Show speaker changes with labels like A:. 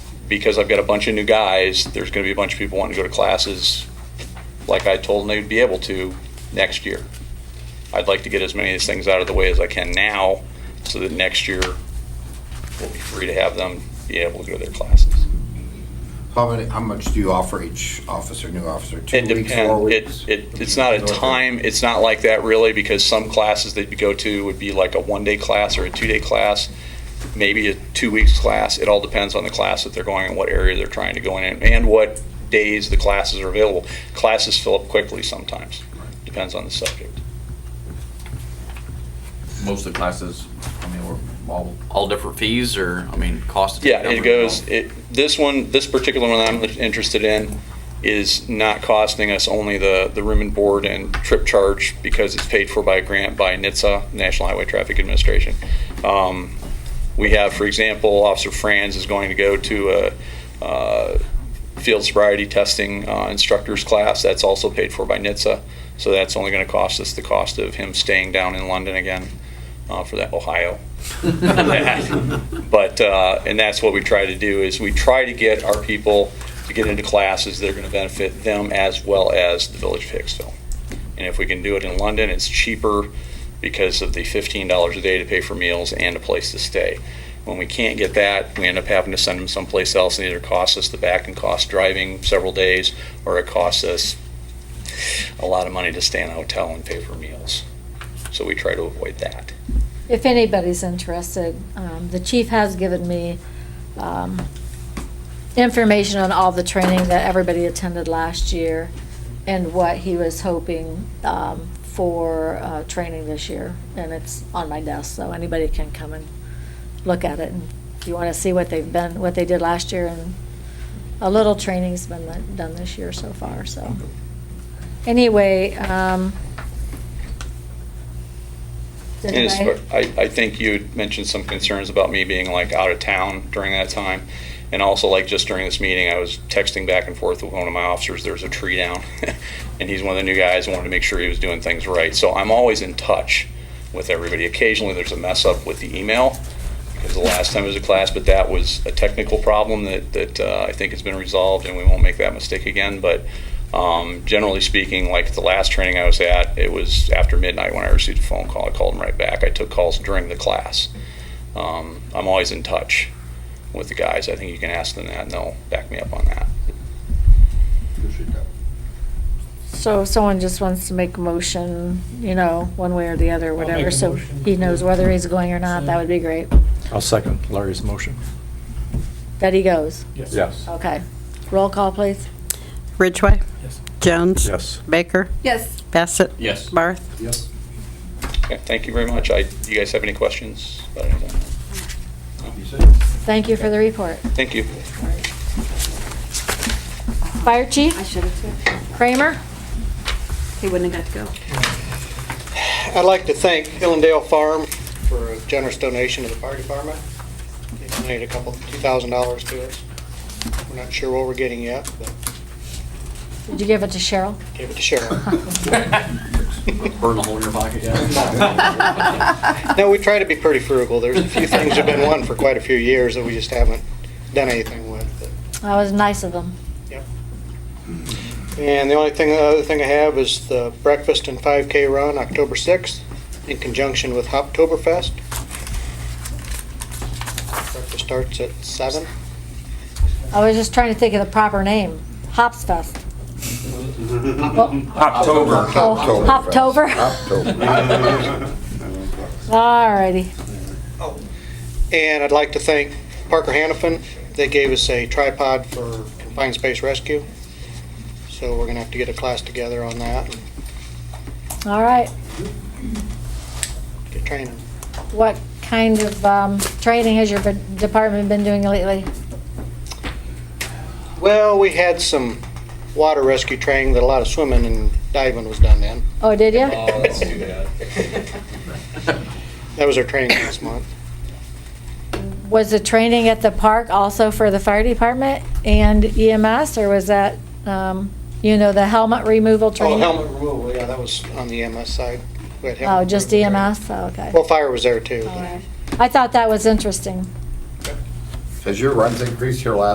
A: because I've got a bunch of new guys, there's going to be a bunch of people wanting to go to classes, like I told them they'd be able to next year. I'd like to get as many of these things out of the way as I can now, so that next year we'll be free to have them be able to go to their classes.
B: How many, how much do you offer each officer, new officer? Two
A: It
B: weeks, four
A: depends.
B: weeks?
A: It, it, it's not a time, it's not like that really, because some classes that you go to would be like a one-day class or a two-day class, maybe a two-weeks class. It all depends on the class that they're going and what area they're trying to go in and- and what days the classes are available. Classes fill up quickly sometimes, depends on the subject.
C: most of the classes, I mean, were all, all different fees or, I mean, cost? to take
A: Yeah, it
C: numbers
A: goes,
C: and all?
A: it, this one, this particular one I'm interested in is not costing us only the, the room and board and trip charge because it's paid for by a grant by NHTSA, National Highway Traffic Administration. Um, we have, for example, Officer Franz is going to go to a, uh, field sobriety testing uh, instructor's class. That's also paid for by NHTSA. So that's only going to cost us the cost of him staying down in London again uh, for that, Ohio. But, uh, and that's what we try to do, is we try to get our people to get into classes that are going to benefit them as well as the Village of Hicksville. And if we can do it in London, it's cheaper because of the $15 a day to pay for meals and a place to stay. When we can't get that, we end up having to send them someplace else, and either costs us the back and cost driving several days, or it costs us a lot of money to stay in a hotel and pay for meals. So we try to avoid that.
D: If anybody's interested, um, the chief has given me um, information on all the training that everybody attended last year and what he was hoping um, for uh, training this year. And it's on my desk, so anybody can come and look at it. And If you want to see what they've been, what they did last year, and a little training's been done- done this year so far, so. Anyway, um. did
A: And as
D: I-
A: far- I, I think you had mentioned some concerns about me being like out of town during that time. And also like just during this meeting, I was texting back and forth with one of my officers, there's a tree down. And he's one of the new guys, I wanted to make sure he was doing things right. So I'm always in touch with everybody. Occasionally, there's a mess up with the email because the last time it was a class, but that was a technical problem that, that uh, I think has been resolved and we won't make that mistake again. But um, generally speaking, like the last training I was at, it was after midnight when I received a phone call. I called them right back. I took calls during the class. Um, I'm always in touch with the guys. I think you can ask them that and they'll back me up on that.
B: Appreciate that.
D: So if someone just wants to make a motion, you know, one way or the other,
E: make
D: whatever,
E: a
D: so
E: motion.
D: he knows whether he's going or not, that would be great,
F: I'll second Larry's motion.
D: that he goes.
F: Yes.
D: Okay. Roll call, please.
G: Ridgway.
E: Yes.
G: Jones.
F: Yes.
G: Baker.
H: Yes.
G: Bassett.
C: Yes.
G: Barth.
F: Yes.
A: Okay, thank you very much. I, you guys have any questions about anything?
D: Thank you for the report.
A: Thank you.
D: Fire
H: I
D: chief,
H: should have too.
D: Kramer?
H: He wouldn't have got to go.
I: I'd like to thank Hillendale Farm for a generous donation to the fire department. They donated a couple, $2,000 to us. We're not sure what we're getting yet, but
D: Did you give it to Cheryl?
I: gave it to Cheryl.
C: Burn a hole in your pocket, yeah.
I: No, we try to be pretty frugal. There's a few things that have been wanting for quite a few years that we just haven't done anything with. but-
D: That was nice of them.
I: And the only thing, the other thing I have is the breakfast and 5K run, October 6th, in conjunction with Hoptoberfest. Breakfast starts at seven.
D: I was just trying to think of the proper name, Hops Fest.
B: October.
D: Oh,
B: October.
D: Hoptober. Alrighty.
I: And I'd like to thank Parker Hannafin. They gave us a tripod for confined space rescue. So we're gonna have to get a class together on that and
D: All right.
I: get training.
D: What kind of um, training has your b- department been doing lately?
I: Well, we had some water rescue training that a lot of swimming and diving was done in.
D: Oh, did you?
A: Uh,
I: That was our training last month.
D: Was the training at the park also for the fire department and EMS, or was that, um, you know, the helmet removal
I: Oh,
D: training?
I: helmet removal, yeah, that was on the EMS side. We had
D: Oh,
I: helmet
D: just
I: removal training.
D: EMS, Oh, okay.
I: Well, fire was there too.
D: All
I: but-
D: right. I thought that was interesting.
B: Has your runs increased here last